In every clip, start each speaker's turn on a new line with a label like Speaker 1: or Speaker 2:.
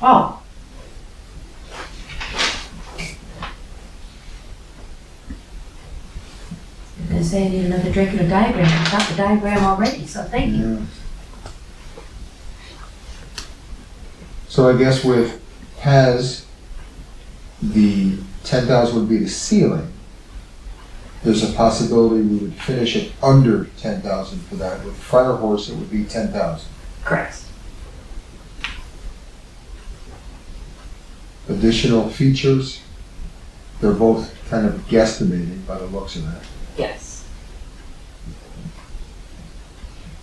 Speaker 1: Oh.
Speaker 2: I was saying, I need another Draco diagram, I got the diagram already, so thank you.
Speaker 3: Yeah. So I guess with has, the ten thousand would be the ceiling. There's a possibility we would finish it under ten thousand for that. With fire horse, it would be ten thousand.
Speaker 1: Correct.
Speaker 3: Additional features, they're both kind of guesstimating by the looks of that.
Speaker 1: Yes.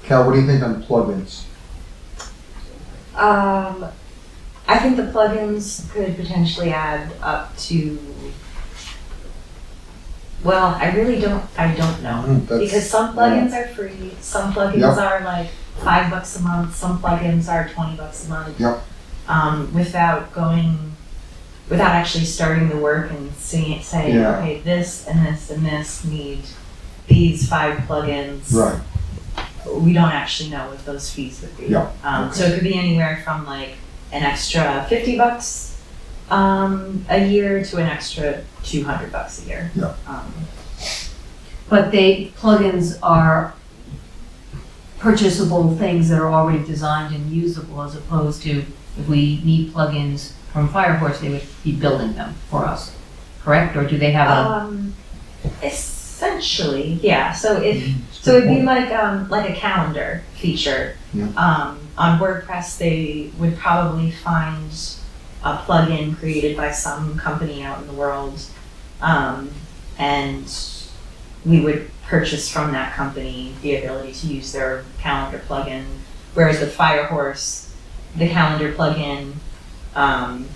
Speaker 3: Cal, what do you think on plugins?
Speaker 4: Um, I think the plugins could potentially add up to. Well, I really don't. I don't know
Speaker 3: Hmm, that's-
Speaker 4: because some plugins are free. Some plugins
Speaker 3: Yep.
Speaker 4: are like five bucks a month. Some plugins are twenty bucks a month.
Speaker 3: Yep.
Speaker 4: Um, without going, without actually starting the work and seeing, saying,
Speaker 3: Yeah.
Speaker 4: okay, this and this and this need these five plugins
Speaker 3: Right,
Speaker 4: we don't actually know what those fees would be.
Speaker 3: Yeah,
Speaker 4: Um, so it could be anywhere from like an extra fifty bucks um, a year to an extra two hundred bucks a year.
Speaker 3: Yeah.
Speaker 4: Um,
Speaker 2: But they, plugins are purchasable things that are already designed and usable as opposed to if we need plugins from Firehorse, they would be building them for us, correct? Or do they have a,
Speaker 4: um, essentially, yeah. So if
Speaker 3: Mm-hmm.
Speaker 4: So it'd be like um, like a calendar feature.
Speaker 3: Yeah.
Speaker 4: Um, on WordPress, they would probably find a plugin created by some company out in the world, um, and we would purchase from that company the ability to use their calendar plugin. Whereas with Firehorse, the calendar plugin, um,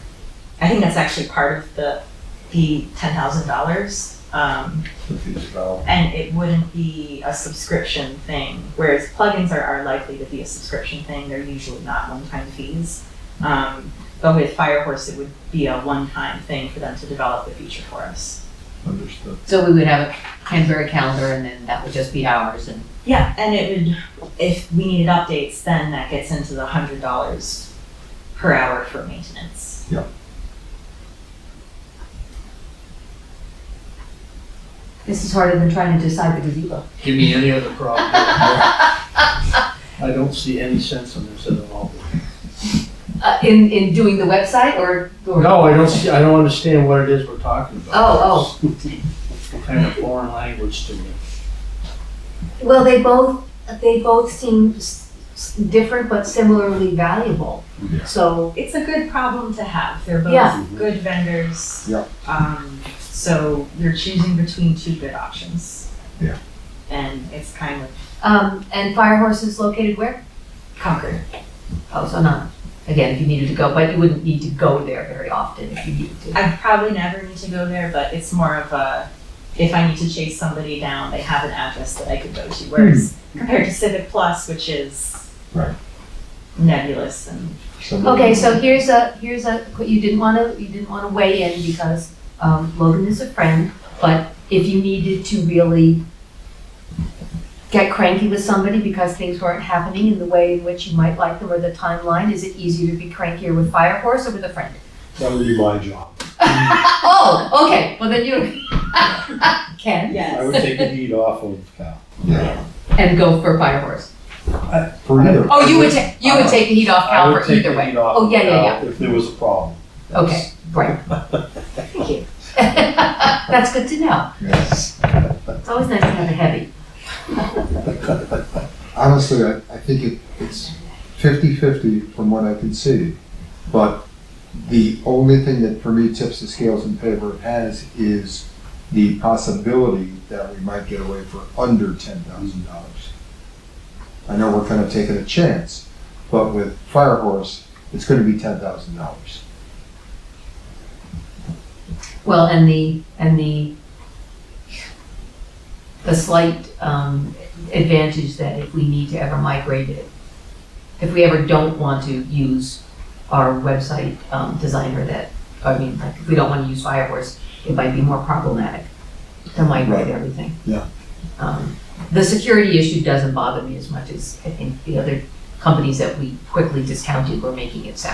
Speaker 4: I think that's actually part of the the ten thousand dollars. Um,
Speaker 3: Confused.
Speaker 4: and it wouldn't be a subscription thing. Whereas plugins are, are likely to be a subscription thing, they're usually not one time fees. Um, but with Firehorse, it would be a one time thing for them to develop the feature for us.
Speaker 3: Understood.
Speaker 2: so we would have a Canberra calendar and then that would just be ours and
Speaker 4: Yeah, and it would, if we needed updates, then that gets into the $100 per hour for maintenance.
Speaker 2: this is harder than trying to decide the gazebo.
Speaker 5: Give me any other problem. I don't see any sense in this at all.
Speaker 2: Uh, in, in doing the website or? or-
Speaker 5: No, I don't see, I don't understand what it is we're talking about.
Speaker 2: Oh,
Speaker 5: It's Kind of foreign language to me.
Speaker 2: Well, they both, they both seem s- s- different but similarly valuable.
Speaker 3: Yeah.
Speaker 2: So,
Speaker 4: It's a good problem to have. They're both
Speaker 2: Yeah.
Speaker 4: good vendors.
Speaker 3: Yeah.
Speaker 4: Um, so you're choosing between two good options.
Speaker 3: Yeah.
Speaker 4: And it's kind of
Speaker 2: um, and Firehorse is located where?
Speaker 4: conquered.
Speaker 2: Oh, so not, again, if you needed to go, but you wouldn't need to go there very often if you needed to.
Speaker 4: I probably never need to go there, but it's more of a if I need to chase somebody down, they have an address that I could go to. Whereas compared to Civic Plus, which is
Speaker 3: Right.
Speaker 4: nebulous and
Speaker 2: Okay, so here's a, here's a, you didn't wanna, you didn't wanna weigh in because, um, Logan is a friend, but if you needed to really get cranky with somebody because things weren't happening in the way in which you might like them or the timeline, is it easier to be crankier with Firehorse or with a friend?
Speaker 6: That would be my job.
Speaker 2: Oh, okay, well then you can,
Speaker 6: I would take the heat off of Cal.
Speaker 3: Yeah.
Speaker 2: and go for Firehorse.
Speaker 6: For either.
Speaker 2: Oh, you would take, you would take the heat off
Speaker 6: Uh-huh. I
Speaker 2: Cal
Speaker 6: would
Speaker 2: for
Speaker 6: take
Speaker 2: either
Speaker 6: the
Speaker 2: way.
Speaker 6: heat off
Speaker 2: Oh,
Speaker 6: of
Speaker 2: yeah, yeah,
Speaker 6: Cal If there was a problem.
Speaker 2: Okay, right. Thank you. Uh, That's good to know.
Speaker 3: Yes.
Speaker 2: It's always nice to have a heavy.
Speaker 3: Honestly, I, I think it, it's 50-50 from what I can see. But the only thing that for me tips the scales in favor of has is the possibility that we might get away for under ten thousand dollars. I know we're kind of taking a chance, but with Firehorse, it's going to be ten thousand dollars.
Speaker 2: Well, and the, and the, the slight um, advantage that if we need to ever migrate it, if we ever don't want to use our website um, designer that, I mean, like, if we don't want to use Firehorse, it might be more problematic to migrate
Speaker 3: Right.
Speaker 2: everything.
Speaker 3: Yeah.
Speaker 2: Um, The security issue doesn't bother me as much as I think the other companies that we quickly discounted were making it sound.